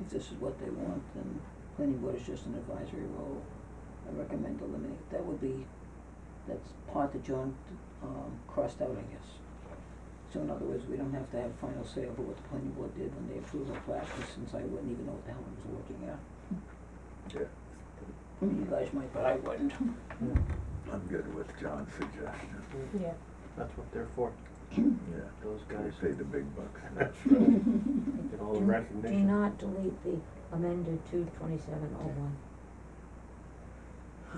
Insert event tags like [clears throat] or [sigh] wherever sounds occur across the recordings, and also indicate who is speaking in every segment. Speaker 1: if this is what they want, then planning board is just an advisory role. I recommend eliminate, that would be, that's part that John, um, crossed out, I guess. So in other words, we don't have to have final say over what the planning board did when they approved our plat, since I wouldn't even know what the hell I was looking at.
Speaker 2: Yeah,
Speaker 1: I mean, You guys might, but I [laughs] wouldn't.
Speaker 2: I'm good with John's suggestion,
Speaker 3: Yeah.
Speaker 4: That's what they're for,
Speaker 2: yeah.
Speaker 1: Mm-hmm.
Speaker 4: those
Speaker 2: They
Speaker 4: guys.
Speaker 2: pay the big bucks,
Speaker 1: [laughs]
Speaker 2: that's right.
Speaker 1: right.
Speaker 4: Get all the
Speaker 5: Do-
Speaker 4: recognition.
Speaker 5: Do not delete the amended two twenty-seven oh one.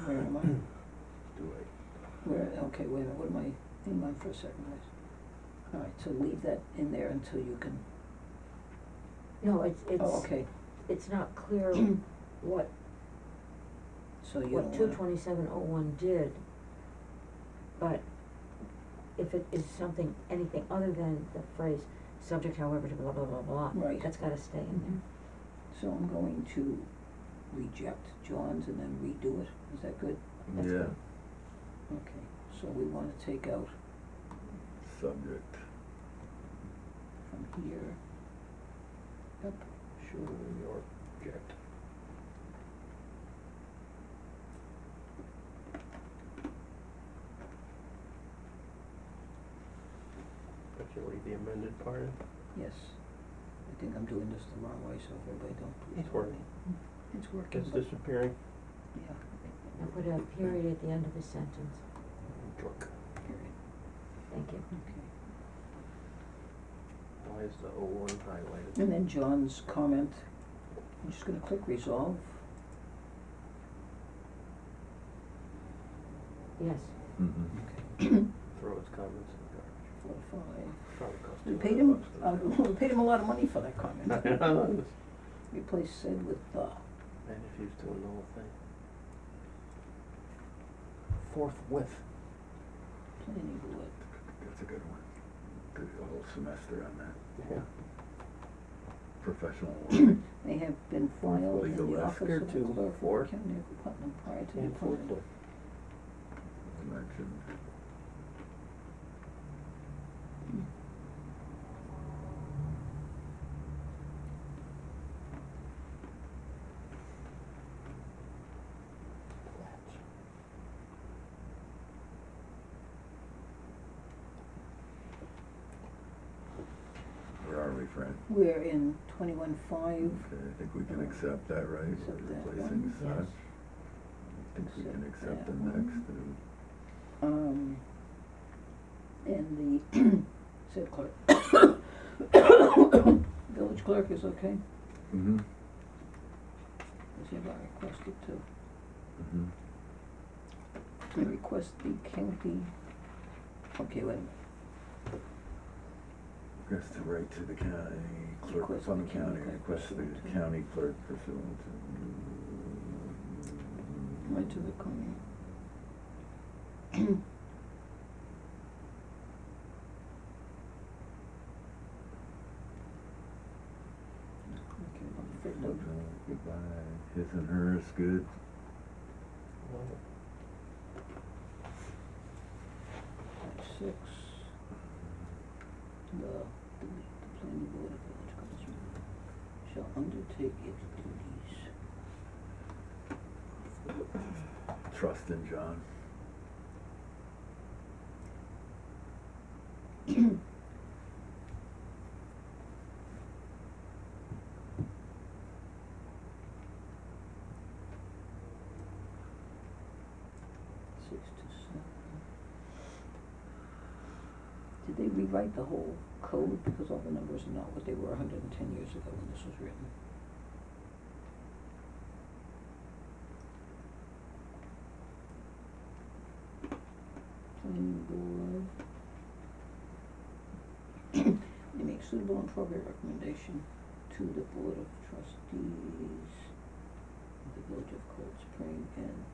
Speaker 1: Where am I?
Speaker 2: Do it.
Speaker 1: Where, okay, wait a minute, what am I, in mind for a second, guys? All right, so leave that in there until you can,
Speaker 5: No, it's,
Speaker 1: oh,
Speaker 5: it's,
Speaker 1: okay,
Speaker 5: it's
Speaker 1: [clears throat]
Speaker 5: not clear what,
Speaker 1: so you don't
Speaker 5: what two
Speaker 1: wanna.
Speaker 5: twenty-seven oh one did. But if it is something, anything other than the phrase, subject however to blah, blah, blah, blah,
Speaker 1: Right.
Speaker 5: that's gotta stay in
Speaker 1: So I'm going to reject John's and then redo it, is that good?
Speaker 5: That's
Speaker 2: Yeah,
Speaker 5: fine.
Speaker 1: Okay, so we wanna take out
Speaker 2: subject,
Speaker 1: from here, up,
Speaker 4: Sure,
Speaker 1: sure,
Speaker 4: your object. But you leave the amended part in?
Speaker 1: yes. I think I'm doing this the wrong way, so if everybody don't please.
Speaker 4: It's
Speaker 1: help me.
Speaker 4: working.
Speaker 1: Mm-hmm. It's working.
Speaker 4: It's
Speaker 1: but-
Speaker 4: disappearing.
Speaker 1: Yeah, Mm-hmm.
Speaker 5: there. And put a period at the end of the sentence,
Speaker 4: Jork.
Speaker 1: period,
Speaker 5: thank you.
Speaker 1: okay.
Speaker 4: Why is the O one highlighted?
Speaker 1: And then John's comment, I'm just gonna click resolve.
Speaker 5: Yes,
Speaker 2: mm-hmm.
Speaker 4: Throw its comments in
Speaker 1: Four, five.
Speaker 4: the garbage. Probably cost
Speaker 1: We
Speaker 4: two
Speaker 1: paid
Speaker 4: hundred
Speaker 1: him,
Speaker 4: bucks to [laughs]
Speaker 1: uh, [laughs]
Speaker 4: do
Speaker 1: we paid him a lot of money for that
Speaker 4: that.
Speaker 1: comment.
Speaker 4: [laughs] And
Speaker 1: Replace said with the,
Speaker 4: if he was doing the whole thing. Forthwith.
Speaker 1: planning board.
Speaker 2: That's a good one. Did a whole semester on that,
Speaker 4: Yeah.
Speaker 2: professional
Speaker 1: [coughs]
Speaker 2: work.
Speaker 1: They have been filed in
Speaker 2: Legal
Speaker 1: the office
Speaker 4: Here
Speaker 1: of the
Speaker 4: too,
Speaker 1: clerk
Speaker 4: four.
Speaker 1: of County of Putnam prior to the
Speaker 4: And
Speaker 1: appointment.
Speaker 4: forthwith.
Speaker 2: mentioned. Where are we, Fran?
Speaker 1: We're in twenty-one
Speaker 2: Okay,
Speaker 1: five,
Speaker 2: I think we can accept that, right? We're
Speaker 1: Accept that
Speaker 2: Replacing
Speaker 1: one,
Speaker 2: such.
Speaker 5: yes.
Speaker 2: I think we can
Speaker 1: Accept
Speaker 2: accept the
Speaker 1: that
Speaker 2: next,
Speaker 1: one.
Speaker 2: uh,
Speaker 1: um, and the [coughs] said clerk. Village clerk is okay,
Speaker 2: mhm,
Speaker 1: as you have requested to,
Speaker 2: mhm.
Speaker 1: and request the county, okay, wait a minute,
Speaker 2: Request to write to the county clerk,
Speaker 1: Request
Speaker 2: Plum
Speaker 1: the county
Speaker 2: County,
Speaker 1: clerk
Speaker 2: request to
Speaker 1: pursuant
Speaker 2: the
Speaker 1: to-
Speaker 2: county clerk pursuant to.
Speaker 1: right to the county. Okay, I'm afraid no-
Speaker 2: Mm-hmm. Goodbye, his and hers, good.
Speaker 4: Love it.
Speaker 1: Five, six. The, the, the planning board of village council shall undertake its duties.
Speaker 2: Trust in John.
Speaker 1: Six to seven. Did they rewrite the whole code because all the numbers are not what they were hundred and ten years ago when this was written? Planning board. They make suitable and appropriate recommendation to the board of trustees of the village of Cold Spring and